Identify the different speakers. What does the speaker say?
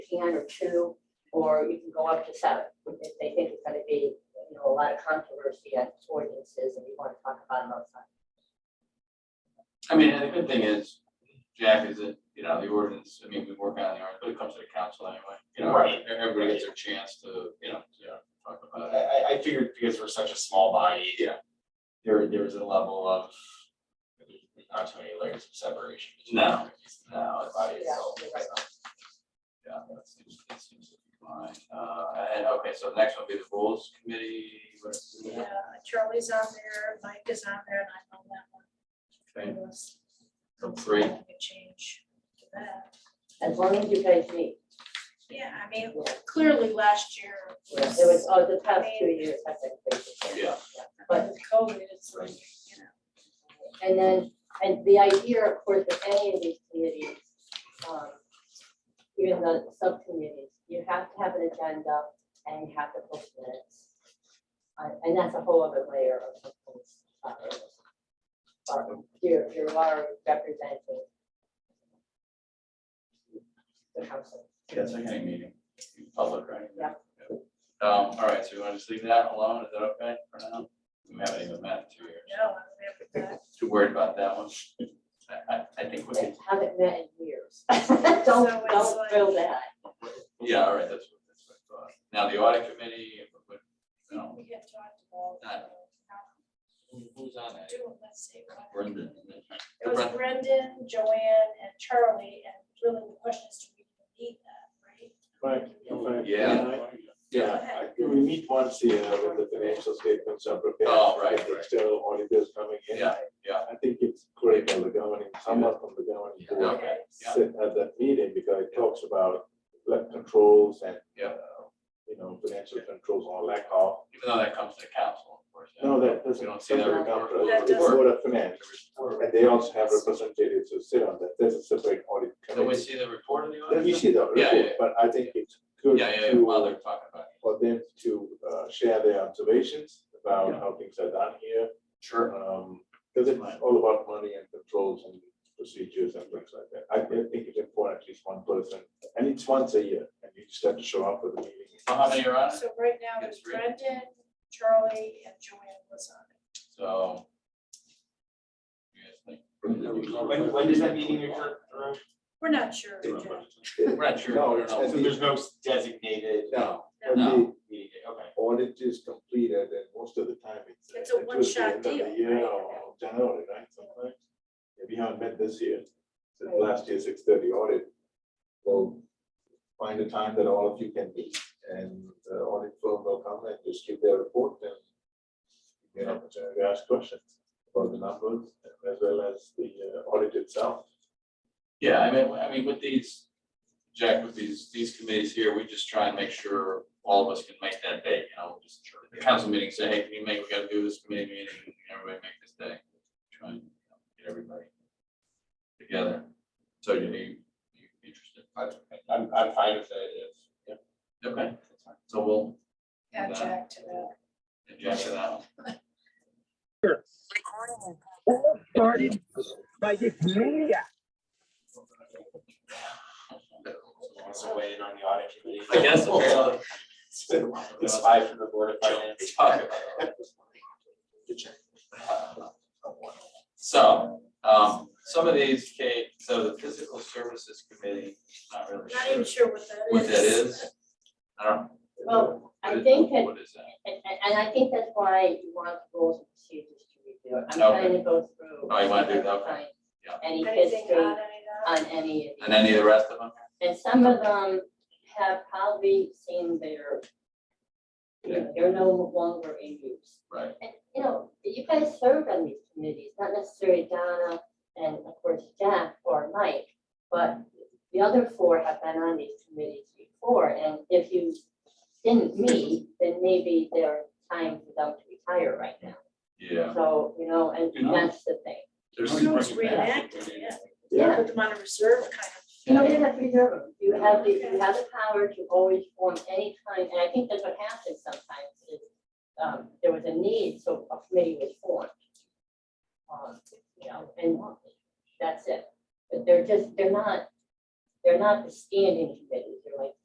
Speaker 1: can or two, or you can go up to seven. If they think it's gonna be, you know, a lot of controversy on ordinances and we wanna talk about them outside.
Speaker 2: I mean, and the good thing is, Jack, is that, you know, the ordinance, I mean, we work on the ordinance, but it comes to the council anyway. You know,
Speaker 3: Right.
Speaker 2: everybody gets their chance to, you know, you know, talk
Speaker 3: I,
Speaker 2: about it.
Speaker 3: I, I figured because we're such a small body.
Speaker 2: Yeah.
Speaker 3: There, there was a level of, there's not too many layers of separation. between
Speaker 2: No.
Speaker 3: the body
Speaker 1: Yeah,
Speaker 3: itself.
Speaker 1: you're right.
Speaker 2: Yeah, that seems, that seems to be fine. Uh, and, okay, so the next one will be the rules committee. What is it?
Speaker 4: Yeah, Charlie's on there, Mike is on there, and I'm on that
Speaker 2: Okay,
Speaker 4: one. Unless
Speaker 2: so three.
Speaker 4: something would Change to that.
Speaker 1: As long as you guys meet,
Speaker 4: Yeah, I mean,
Speaker 1: Yeah.
Speaker 4: clearly last year
Speaker 1: it
Speaker 4: was,
Speaker 1: was, oh, the past two years have been crazy.
Speaker 2: Yeah.
Speaker 4: but with COVID, it's like, you know.
Speaker 1: And then, and the idea, of course, of any of these committees, um, even the subcommittees, you have to have an agenda and you have to post minutes. Uh, And that's a whole other layer of the post. uh, uh, Here, you are representing the council.
Speaker 2: Yes, I can meeting, public, right?
Speaker 1: Yeah.
Speaker 2: Um, all right, so you want to just leave that alone, is that okay for now? We haven't even met in two years,
Speaker 4: No, I'm there with that.
Speaker 2: too worried about that one. I, I, I think we can,
Speaker 1: They haven't met in years. Don't,
Speaker 4: So it's
Speaker 1: don't
Speaker 4: like-
Speaker 1: feel that.
Speaker 2: yeah, all right, that's what, that's what I thought. Now, the audit committee, what, no,
Speaker 4: We had talked about.
Speaker 2: Uh,
Speaker 4: uh,
Speaker 2: who's on that?
Speaker 4: Doing, let's see. what-
Speaker 2: Brendan.
Speaker 4: It was
Speaker 2: Brendan.
Speaker 4: Brendan, Joanne, and Charlie, and really the question is, do we even need that, right?
Speaker 5: Right, if I-
Speaker 2: Yeah.
Speaker 5: Yeah, I- we meet once a year with the financial statements are prepared.
Speaker 2: Oh, right,
Speaker 5: with
Speaker 2: right.
Speaker 5: External auditors coming in.
Speaker 2: Yeah, yeah.
Speaker 5: I think it's critical, the governing, someone from the governing
Speaker 2: Yeah.
Speaker 5: board
Speaker 2: Okay, yeah.
Speaker 5: sit at that meeting because it talks about like controls and.
Speaker 2: Yeah.
Speaker 5: uh, You know, financial controls or lack of,
Speaker 2: Even though that comes to the council, of course. yeah.
Speaker 5: no, that
Speaker 2: We
Speaker 5: doesn't.
Speaker 2: don't see that
Speaker 5: doesn't
Speaker 2: report.
Speaker 5: come to
Speaker 4: That
Speaker 5: the
Speaker 4: doesn't-
Speaker 5: Board of Finance, and they also have representatives who sit on that, there's a separate audit
Speaker 2: So we
Speaker 5: committee.
Speaker 2: see the report of the audit?
Speaker 5: Then we see the
Speaker 2: Yeah, yeah,
Speaker 5: report, but I think it's good
Speaker 2: Yeah, yeah, yeah,
Speaker 5: to,
Speaker 2: while they're talking about it.
Speaker 5: for them to uh, share their observations about
Speaker 2: Yeah.
Speaker 5: how things are done here. um,
Speaker 2: Sure.
Speaker 5: Because it's all about money and controls and procedures and things like that. I I think it's important, at least one person, and it's once a year, and you just have to show up for the meeting.
Speaker 2: So how many are on it?
Speaker 4: So right now, it's
Speaker 2: It's really-
Speaker 4: Brendan, Charlie, and Joanne was on it.
Speaker 2: So. you guys think-
Speaker 3: When, when does that meeting occur? Drew?
Speaker 4: We're not sure.
Speaker 3: Drew,
Speaker 4: Jack.
Speaker 2: We're not sure,
Speaker 5: No,
Speaker 2: we don't
Speaker 5: it's
Speaker 2: know.
Speaker 5: at
Speaker 3: So there's no designated
Speaker 5: No,
Speaker 4: No.
Speaker 5: when the
Speaker 3: meeting day, okay.
Speaker 5: audit is completed, and most of the time it's.
Speaker 4: It's a
Speaker 5: it was the
Speaker 4: one-shot
Speaker 5: end of the
Speaker 4: deal,
Speaker 5: Year
Speaker 4: right?
Speaker 5: or January, right, sometimes. If you haven't met this year, since
Speaker 1: Right.
Speaker 5: last year's six thirty audit, we'll find a time that all of you can meet, and the audit firm will come and just give their report and you get an opportunity to ask questions about the numbers as well as the uh, audit itself.
Speaker 2: Yeah, I mean, I mean, with these, Jack, with these, these committees here, we just try and make sure all of us can make that day, you know, just the council meeting, say, hey, can you make, we gotta do this committee meeting, can everybody make this day? Try and you know, get everybody together. So you, you you interested?
Speaker 3: I'm, I'm fine with that, if,
Speaker 2: Okay, so we'll,
Speaker 4: Add Jack to that.
Speaker 2: and Jack to that one.
Speaker 6: started by this maniac.
Speaker 3: also weigh in on the audit committee.
Speaker 2: I guess apparently.
Speaker 3: It's been- It's five from the board of finance.
Speaker 2: Talk about it. So, um, some of these, Kate, so the physical services committee, not really
Speaker 4: uh, Not even
Speaker 2: sure
Speaker 4: sure what
Speaker 2: what
Speaker 4: that is.
Speaker 2: that is. I don't.
Speaker 1: Well, I
Speaker 2: what-
Speaker 1: think that
Speaker 2: What is that?
Speaker 1: And, and, and I think that's why you want rules and procedures to review it. I'm trying to go through.
Speaker 2: Oh, you wanna do
Speaker 1: and
Speaker 2: that, okay.
Speaker 1: find
Speaker 2: Yeah.
Speaker 1: Any
Speaker 4: Anything
Speaker 1: history
Speaker 4: on
Speaker 1: on
Speaker 4: any of that?
Speaker 1: any of these.
Speaker 2: And any of the rest of them?
Speaker 1: And some of them have probably seen their, they're no longer in use.
Speaker 2: Right.
Speaker 1: And, you know, you guys served on these committees, not necessarily Donna and of course Jack or Mike, but the other four have been on these committees before, and if you didn't meet, then maybe they're time for them to retire right now.
Speaker 2: Yeah.
Speaker 1: So, you know, and
Speaker 2: You know.
Speaker 1: that's the thing.
Speaker 2: There's-
Speaker 4: We can always
Speaker 2: bring it back.
Speaker 4: reenact it, yeah.
Speaker 1: Yeah.
Speaker 4: Put them on a reserve kind of.
Speaker 1: You don't even have to reserve them. You have the, you have the power to always form any kind, and I think that's what happens sometimes is, um, there was a need, so a committee was formed. Um, you know, and that's it. But they're just, they're not, they're not the standing committees. They're like